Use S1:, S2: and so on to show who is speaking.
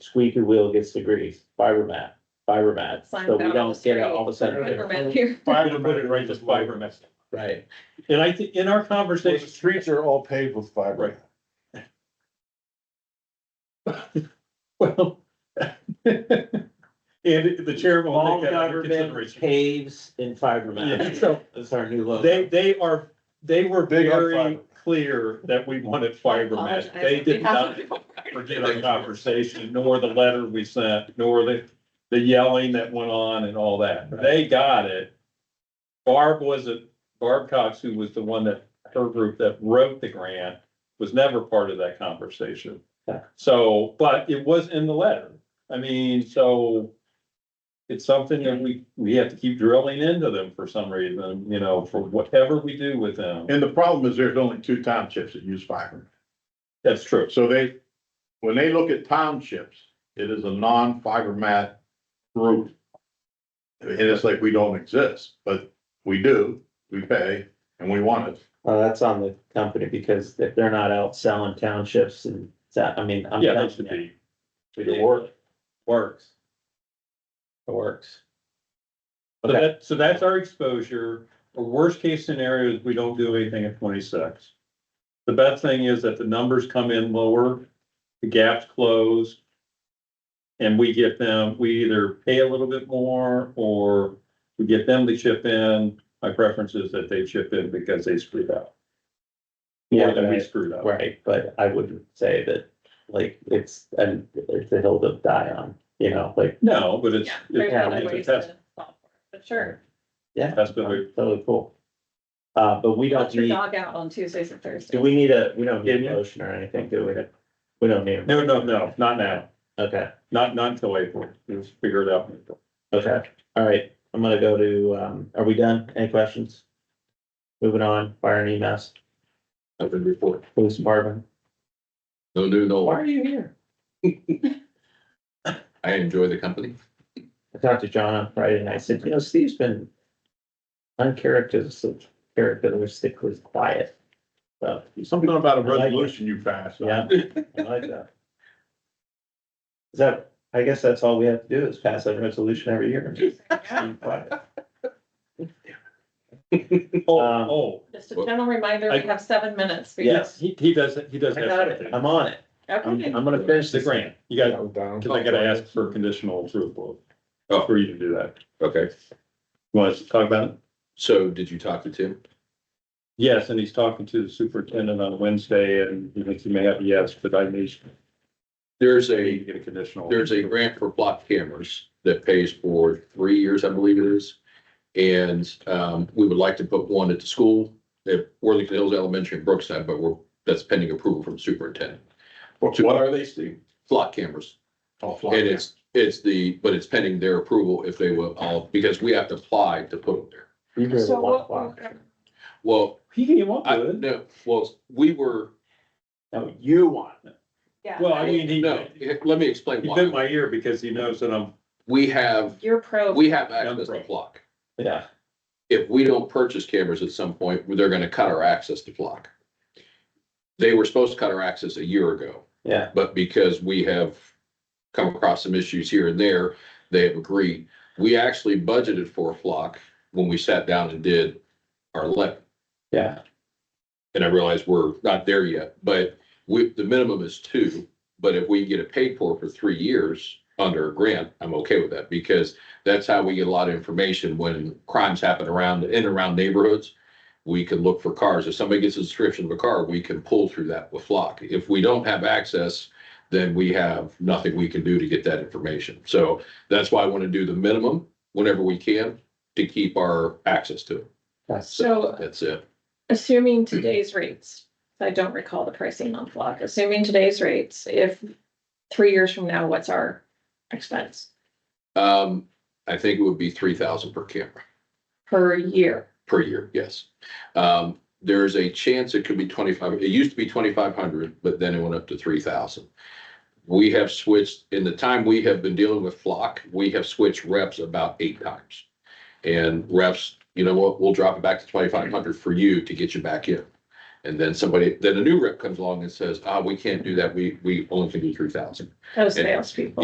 S1: squeaky wheel gets the grease, fiber mat, fiber mat,
S2: Signs
S1: so
S2: out
S1: we
S2: on the
S1: don't get it
S2: street.
S1: all of a sudden.
S2: Fiber mat here.
S3: Fiber put it right this way.
S1: Right, and I think in our
S3: The
S1: conversation,
S3: streets are all paved with fiber.
S1: well,
S4: And the chair will
S1: all
S4: take that under
S1: government
S4: consideration.
S1: caves in fiber mat,
S4: Yeah.
S1: so that's our new logo.
S4: They, they are, they were
S3: Big on
S4: very
S3: fiber.
S4: clear that we wanted fiber mesh.
S2: Apologize
S4: They
S2: on
S4: did
S2: behalf
S4: not
S2: of people.
S4: forget our conversation, nor the letter we sent, nor the, the yelling that went on and all that. They got it. Barb wasn't, Barb Cox, who was the one that, her group that wrote the grant, was never part of that conversation.
S1: Yeah.
S4: So, but it was in the letter. I mean, so it's something that we, we have to keep drilling into them for some reason, you know, for whatever we do with them.
S5: And the problem is there's only two townships that use fiber.
S4: That's true.
S5: So they, when they look at townships, it is a non-fiber mat route. And it's like, we don't exist, but we do, we pay, and we want it.
S1: Well, Oh, that's on the company because they- they're not out selling townships and that, I mean, I'm.
S4: Yeah, that
S1: telling
S4: should
S1: you,
S4: be.
S1: It works. Works. It works.
S4: So
S1: Okay.
S4: that, so that's our exposure. The worst case scenario is we don't do anything at twenty-six. The best thing is that the numbers come in lower, the gaps close. And we get them, we either pay a little bit more or we get them to chip in. My preference is that they chip in because they screwed up. Or that we
S1: right.
S4: screwed up.
S1: Right, but I wouldn't say that, like, it's, and it's a hill to die on, you know, like,
S4: No, but it's,
S2: Yeah,
S4: it's
S2: there's
S1: Yeah,
S2: other
S4: it's a
S2: ways
S4: test.
S2: to solve for it, But sure,
S1: yeah.
S4: That's been very-
S1: Totally cool. Uh, but we don't
S2: let your
S1: need,
S2: dog out on Tuesdays and Thursdays.
S1: do we need a, we don't need
S4: Yeah.
S1: a motion or anything, do we? We don't need,
S4: no, no, no, not now,
S1: okay,
S4: not, not until April. We'll figure it out. in April.
S1: okay, all right, I'm gonna go to, um, are we done? Any questions? Moving on, fire and EMS,
S6: Nothing report.
S1: police department,
S6: No
S1: why
S6: new, no,
S1: are you here?
S6: I enjoy the company.
S1: I talked to John on Friday and I said, you know, Steve's been uncharacteristic, characteristically quiet. So,
S5: Something about a
S1: I like it.
S5: resolution you pass.
S1: yeah, I like that. Is that, I guess that's all we have to do is pass a resolution every year.
S2: Yeah.
S1: Be quiet.
S4: Oh,
S1: Um,
S4: oh,
S2: Just a general reminder, we
S4: I-
S2: have seven minutes. because-
S1: Yes.
S4: he, he does, he does.
S1: I
S4: have
S1: got it,
S4: something.
S1: I'm on it, I'm,
S2: Okay,
S1: I'm gonna finish
S4: The
S1: the grant.
S4: grant, you got,
S3: down.
S4: cause I gotta ask for conditional approval
S6: Oh.
S4: for you to do that.
S6: Okay,
S4: You Want us to talk about it?
S6: so did you talk to Tim?
S4: Yes, and he's talking to the superintendent on Wednesday and he thinks he may have a yes, but I need
S6: There's
S4: need
S6: a,
S4: to get a conditional.
S6: there's a grant for block cameras that pays for three years, I believe it is. And um, we would like to put one at the school, at Worthington Hills Elementary in Brookside, but we're, that's pending approval from superintendent.
S5: What what are they, Steve?
S6: Block cameras.
S5: Oh, fly.
S6: And it's, it's the, but it's pending their approval if they will, all because we have to apply to put them there.
S1: You do it at
S2: So
S1: one
S2: what-
S1: o'clock.
S6: Well,
S4: He came up
S6: I,
S4: with it.
S6: no, well, we were,
S1: No, you want it.
S2: yeah.
S4: Well, I mean, he,
S6: no, let me explain
S4: he bit
S6: why.
S4: my ear because he knows that I'm,
S6: We have
S2: You're pro.
S6: We have access to Flock.
S1: Yeah,
S6: If we don't purchase cameras at some point, they're gonna cut our access to Flock. They were supposed to cut our access a year ago,
S1: yeah,
S6: but because we have come across some issues here and there, they have agreed. We actually budgeted for Flock when we sat down and did our levy.
S1: yeah,
S6: And I realize we're not there yet, but we, the minimum is two. But if we get it paid for for three years under a grant, I'm okay with that because that's how we get a lot of information when crimes happen around, in and around neighborhoods. We can look for cars. If somebody gets a description of a car, we can pull through that with Flock. If we don't have access, then we have nothing we can do to get that information. So that's why I want to do the minimum whenever we can to keep our access to it.
S1: that's,
S2: So
S6: That's it.
S2: assuming today's rates, I don't recall the pricing on Flock, assuming today's rates, if three years from now, what's our expense
S6: Um, I think it would be three thousand per camera,
S2: per year?
S6: per year, yes. Um, there's a chance it could be twenty-five, it used to be twenty-five hundred, but then it went up to three thousand. We have switched, in the time we have been dealing with Flock, we have switched reps about eight times. And reps, you know what, we'll drop it back to twenty-five hundred for you to get you back in. And then somebody, then a new rep comes along and says, ah, we can't do that. We, we only can do three thousand.
S2: those salespeople.